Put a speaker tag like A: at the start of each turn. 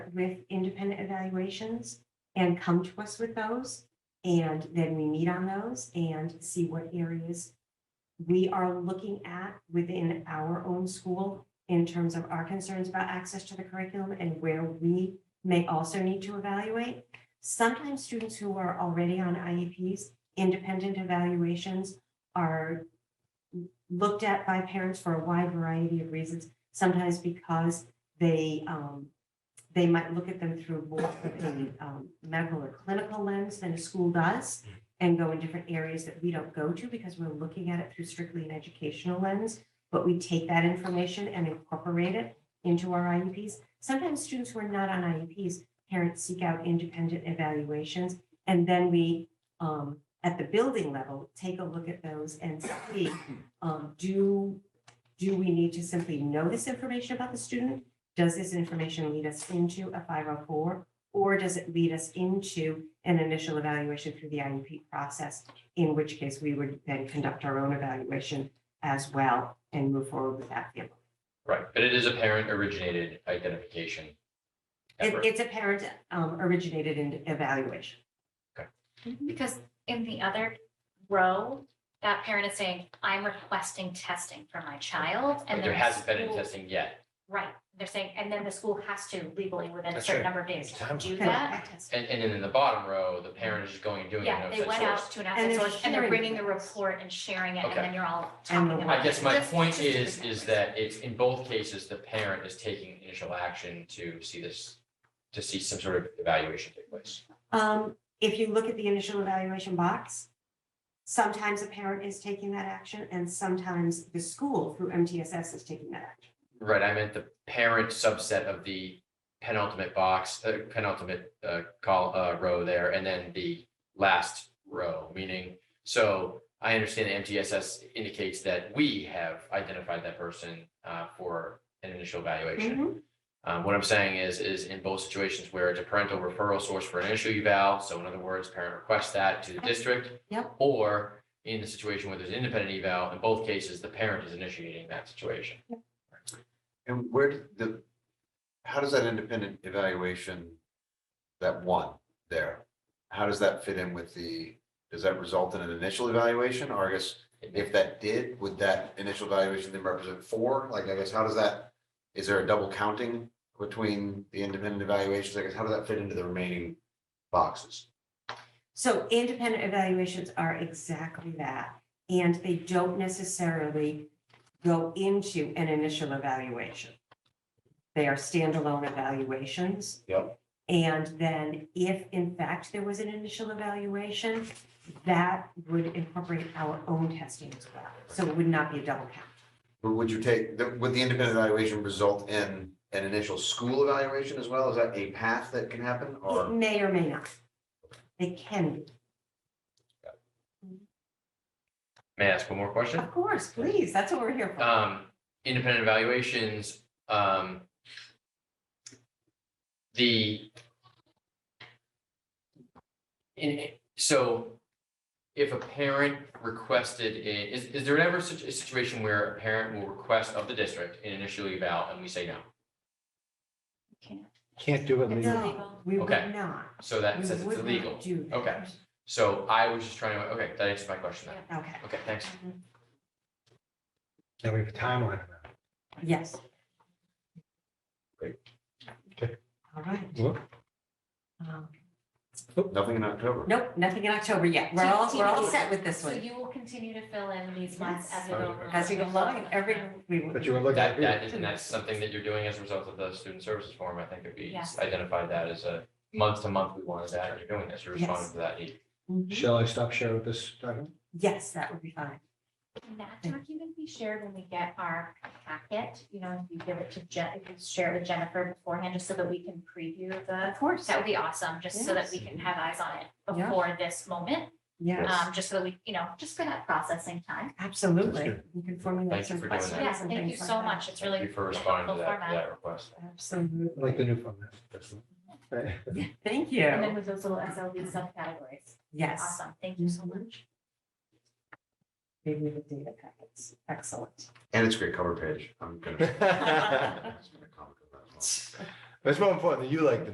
A: with independent evaluations and come to us with those. And then we meet on those and see what areas we are looking at within our own school in terms of our concerns about access to the curriculum and where we may also need to evaluate. Sometimes students who are already on IEPs, independent evaluations are looked at by parents for a wide variety of reasons, sometimes because they, um, they might look at them through more of a um, medical or clinical lens than a school does and go in different areas that we don't go to because we're looking at it through strictly an educational lens. But we take that information and incorporate it into our IEPs. Sometimes students who are not on IEPs, parents seek out independent evaluations. And then we, um, at the building level, take a look at those and see, um, do, do we need to simply know this information about the student? does this information lead us into a five oh four? Or does it lead us into an initial evaluation through the IEP process? In which case we would then conduct our own evaluation as well and move forward with that. It,
B: Right, but it is a parent originated identification. effort.
A: it's a parent um, originated in evaluation.
C: Because in the other row, that parent is saying, I'm requesting testing for my child.
B: But
C: and
B: There
C: then the
B: hasn't been any
C: school-
B: testing yet.
C: Right, they're saying, and then the school has to legally within a
B: That's
C: certain
B: right.
C: number of days
B: Time.
C: do that.
A: Correct.
B: And, and then in the bottom row, the parent is just going and doing it.
C: Yeah,
B: no
C: they
B: such
C: went
B: source.
C: out to an
A: And
C: outside
A: they're
C: source and they're
A: sharing
C: bringing the
A: it.
C: report and sharing it,
B: Okay.
C: and then you're all
A: And the
C: talking about.
B: I guess
C: it.
B: my
C: Just-
B: point
C: just to
B: is,
C: present
B: is
C: it.
B: that it's, in both cases, the parent is taking initial action to see this, to see some sort of evaluation take place.
A: Um, if you look at the initial evaluation box, sometimes a parent is taking that action and sometimes the school through MTSS is taking that action.
B: Right, I meant the parent subset of the penultimate box, uh, penultimate, uh, call, uh, row there, and then the last row, meaning, so I understand the MTSS indicates that we have identified that person, uh, for an initial evaluation.
A: Mm-hmm.
B: Um, what I'm saying is, is in both situations where it's a parental referral source for an issue eval, so in other words, parent requests that to the district.
A: Yep.
B: Or in the situation where there's an independent eval, in both cases, the parent is initiating that situation.
D: And where did the, how does that independent evaluation, that one there, how does that fit in with the, does that result in an initial evaluation? Or I guess if that did, would that initial evaluation then represent four? Like, I guess, how does that, is there a double counting between the independent evaluations? I guess, how does that fit into the remaining boxes?
A: So independent evaluations are exactly that, and they don't necessarily go into an initial evaluation. They are standalone evaluations.
D: Yep.
A: And then if in fact there was an initial evaluation, that would incorporate our own testing as well. So it would not be a double count.
D: But Would you take, the- would the independent evaluation result in an initial school evaluation as well? Is that a path that can happen
A: It
D: or?
A: may or may not. They can be.
B: May I ask one more question?
A: Of course, please, that's what we're here for.
B: Um, independent evaluations, um. The. In, so if a parent requested, a- is, is there ever such a situation where a parent will request of the district an initial eval and we say no?
E: Can't do it legally.
A: No, we would
B: Okay.
A: not.
B: So that
A: We
B: says it's
A: would not
B: illegal.
A: Do that.
B: Okay, so I was just trying to, okay, that answers my question then.
A: Okay,
B: Okay, thanks.
E: Now we have a timeline. on that.
A: yes.
D: Great.
E: Okay.
A: All right.
E: Well,
A: Um,
D: Nothing in October?
A: Nope, nothing in October yet. We're all, we're all set with this
C: So
A: one.
C: you will continue to fill in these months
A: Yes.
C: as we go along.
A: As we go along, and every, we will.
E: But you were looking at.
B: That, that is, and that's something that you're doing as a result of the student services forum. I think if we
C: Yes.
B: identified that as a month to month, we wanted that, and you're doing this, you're responding
A: Yes.
B: to that need.
A: Mhm.
E: Shall I stop sharing with this document?
A: Yes, that would be fine.
C: Can that document be shared when we get our packet? You know, if you give it to Jen, if you share it with Jennifer beforehand, just so that we can preview the,
A: Of course.
C: that would be awesome, just so that we can have eyes on it
A: Yeah.
C: before this moment.
A: Yes,
C: Um, just so that we, you know, just for that processing time.
A: absolutely.
E: That's
A: You can formulate
B: Thank you
A: some
B: for doing that.
A: questions
C: Yeah,
A: and
C: thank you
A: things like
C: so
A: that.
C: much. It's
B: Thank
C: really.
B: you for responding to
C: helpful
B: that,
C: format.
B: to that request.
E: I like the
A: Absolutely.
E: new format. That's all. Right.
A: Thank
C: And then
A: you.
C: with those little SLB subcategories.
A: Yes.
C: Awesome. Thank you so
A: Mhm.
C: much.
A: Maybe the data packets. Excellent.
D: And it's a great cover page. I'm gonna. I'm just gonna comment on that as well.
E: But it's more important that you like the